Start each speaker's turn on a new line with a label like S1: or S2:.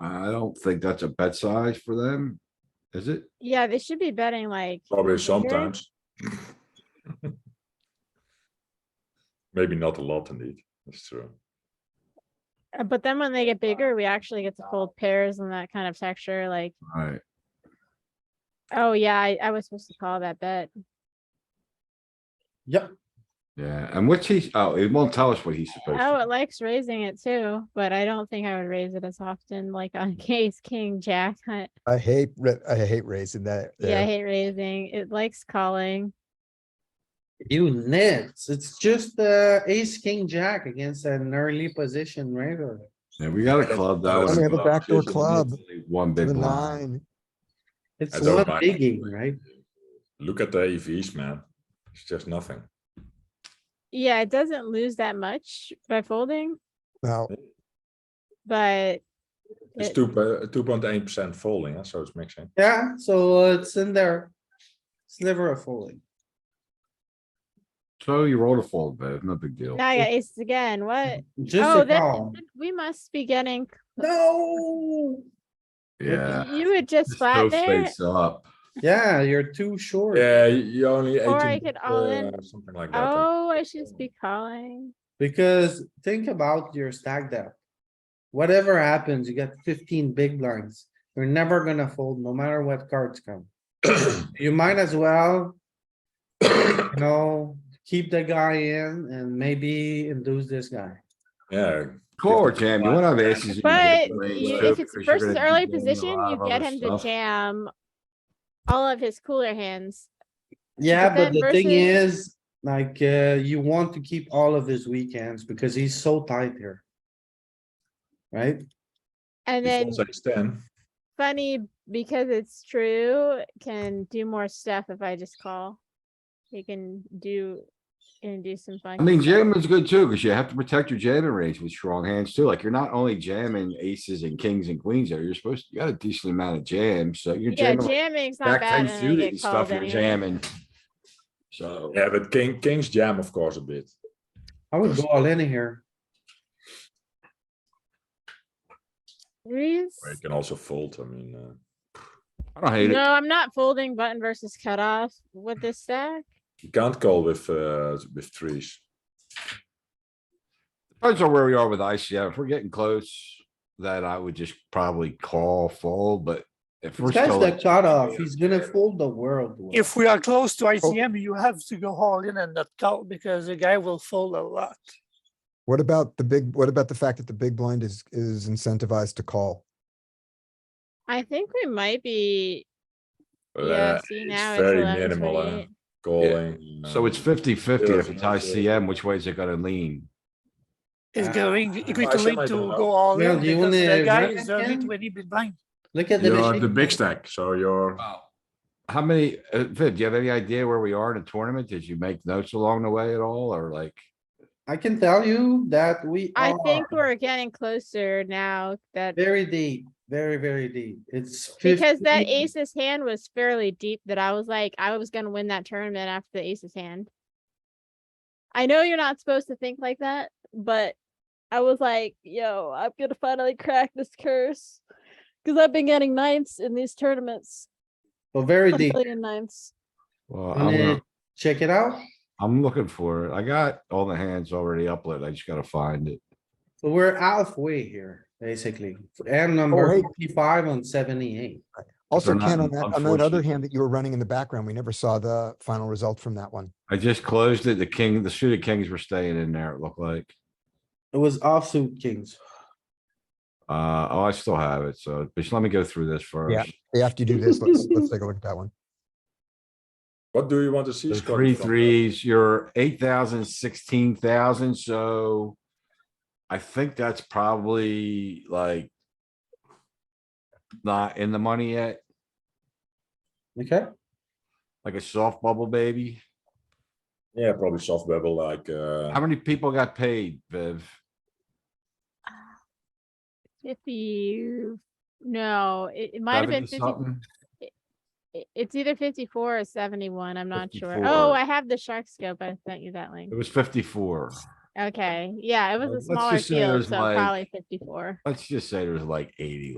S1: I don't think that's a bet size for them, is it?
S2: Yeah, they should be betting like.
S3: Probably
S2: here.
S3: sometimes. Maybe not a lot indeed, that's true.
S2: Uh, But then when they get bigger, we actually get to fold pairs and that kind of texture, like,
S1: Alright,
S2: oh yeah, I, I was supposed to call that bet.
S4: Yeah,
S1: yeah, and what's he, oh, it won't tell us what he's supposed
S2: Oh,
S1: to.
S2: it likes raising it too, but I don't think I would raise it as often, like on ace, king, jack. I-
S5: I hate, ra- I hate raising that.
S2: Yeah, I
S5: there.
S2: hate raising. It likes calling.
S6: You nits, it's just uh ace, king, jack against an early position raiser.
S1: Yeah, we got a club though.
S5: We have a backdoor club.
S1: One big
S5: The
S1: blind.
S5: nine,
S6: It's
S3: I don't
S6: not
S3: mind.
S6: biggie, right?
S3: Look at the EVs, man. It's just nothing.
S2: Yeah, it doesn't lose that much by folding,
S5: no,
S2: but.
S3: It's
S2: it-
S3: two, two point eight percent falling, so it's mixing.
S6: Yeah, so it's in there. Sliver of folding.
S1: So you roll a fold, but it's no big deal.
S2: Now I got aces again. What?
S6: Just
S2: Oh,
S6: a
S2: that-
S6: call.
S2: We must be getting,
S6: No.
S1: Yeah.
S2: you would just
S1: Just
S2: flat
S1: go
S2: there
S1: Face up.
S6: Yeah, you're too short.
S3: Yeah, you only
S2: Or I
S3: eighteen,
S2: could all in.
S3: uh, something like that. I
S2: Oh, I should just be calling.
S6: Because think about your stack depth. Whatever happens, you got fifteen big blinds. You're never gonna fold, no matter what cards come. You might as well. You know, keep the guy in and maybe induce this guy.
S3: Yeah,
S1: Core jam, you wanna have aces. you
S2: But
S1: can
S2: you-
S1: raise too,
S2: if it's
S1: because you're gonna
S2: versus
S1: be
S2: early
S1: jamming a
S2: position,
S1: lot
S2: you
S1: of
S2: get
S1: other
S2: him to
S1: stuff.
S2: jam all of his cooler hands.
S6: Yeah,
S2: But
S6: but
S2: then
S6: the thing
S2: versus-
S6: is, like, uh, you want to keep all of his weekends because he's so tight here. Right?
S2: And then
S3: it's also ten.
S2: funny, because it's true, can do more stuff if I just call. He can do, can do some fun.
S1: I mean, jamming's good too, cause you have to protect your jamming range with strong hands too. Like, you're not only jamming aces and kings and queens there, you're supposed, you got a decent amount of jams, so you're
S2: Yeah,
S1: jamming. like
S2: jamming's not
S1: Back
S2: bad.
S1: ten
S2: and then I
S1: suited and
S2: get called
S1: stuff, you're
S2: anyway.
S1: jamming. So,
S3: Yeah, but king, kings jam, of course, a bit.
S6: I would go all in here.
S2: Threes?
S3: Or you can also fold, I mean, uh,
S1: I don't hate
S2: No,
S1: it.
S2: I'm not folding button versus cutoff with this stack.
S3: you can't call with, uh, with threes.
S1: Depends on where we are with ICM. If we're getting close, that I would just probably call fold, but if we're
S6: This guy's
S1: still.
S6: the cutoff.
S1: Yeah.
S6: He's gonna fold the world. Will.
S7: If we are close to ICM, you have to go all in and not call because the guy will fold a lot.
S5: what about the big, what about the fact that the big blind is, is incentivized to call?
S2: I think we might be,
S3: Uh,
S2: yeah, see now
S3: it's
S2: it's
S3: very
S2: eleven
S3: minimal, uh,
S2: twenty-eight.
S3: calling.
S1: So
S3: uh,
S1: it's fifty fifty.
S3: Yeah,
S1: If it's
S3: that's it.
S1: ICM, which way is it gonna lean?
S7: It's
S6: Ah.
S7: going, it's going to
S3: ICM, I
S7: link to
S3: don't know.
S7: go all
S6: Well,
S7: in
S6: do you
S7: because the
S6: wanna
S7: guy
S6: run
S7: is only
S6: again?
S7: twenty bit blind.
S6: Look at
S3: You're at the
S6: the.
S3: big stack, so you're,
S1: How many, uh, Viv, do you have any idea where we are in the tournament? Did you make notes along the way at all or like?
S6: I can tell you that we
S2: I
S6: are
S2: think we're getting closer now that,
S6: very deep, very, very deep. It's.
S2: because that
S6: 15.
S2: aces hand was fairly deep that I was like, I was gonna win that tournament after the aces hand. I know you're not supposed to think like that, but I was like, yo, I'm gonna finally crack this curse. Cause I've been getting ninths in these tournaments,
S6: So very
S2: a
S6: deep.
S2: million ninths.
S1: Well,
S6: Wanna
S1: I'm, not-
S6: Check it out.
S1: I'm looking for it. I got all the hands already uploaded. I just gotta find it.
S6: So we're halfway here, basically. And
S5: hey.
S6: number fifty-five on seventy-eight.
S5: Also,
S1: they're not
S5: Ken,
S1: in-
S5: on that, on that other
S1: unfortunately.
S5: hand that you were running in the background, we never saw the final result from that one.
S1: I just closed it. The king, the suited kings were staying in there, it looked like.
S6: It was offsuit kings.
S1: Uh, oh, I still have it, so just let me go through this first.
S5: Hey, After you do this, let's, let's take a look at that one.
S3: what do you want to see?
S1: The three
S3: Scotty, from that?
S1: threes, you're eight thousand, sixteen thousand, so. I think that's probably like. Not in the money yet,
S6: Okay,
S1: like a soft bubble baby.
S3: Yeah, probably soft bevel like,
S1: How
S3: uh,
S1: many people got paid, Viv?
S2: Fifty, no, it, it might have been
S1: 70
S2: fifty.
S1: something?
S2: it- It's either fifty-four or seventy-one, I'm not sure. Oh,
S1: 54.
S2: I have the shark scope, I sent you that link.
S1: It was fifty-four.
S2: Okay, yeah, it
S1: Uh,
S2: was a
S1: let's
S2: smaller
S1: just say
S2: field,
S1: there's
S2: so
S1: like-
S2: probably fifty-four.
S1: Let's just say there was like eighty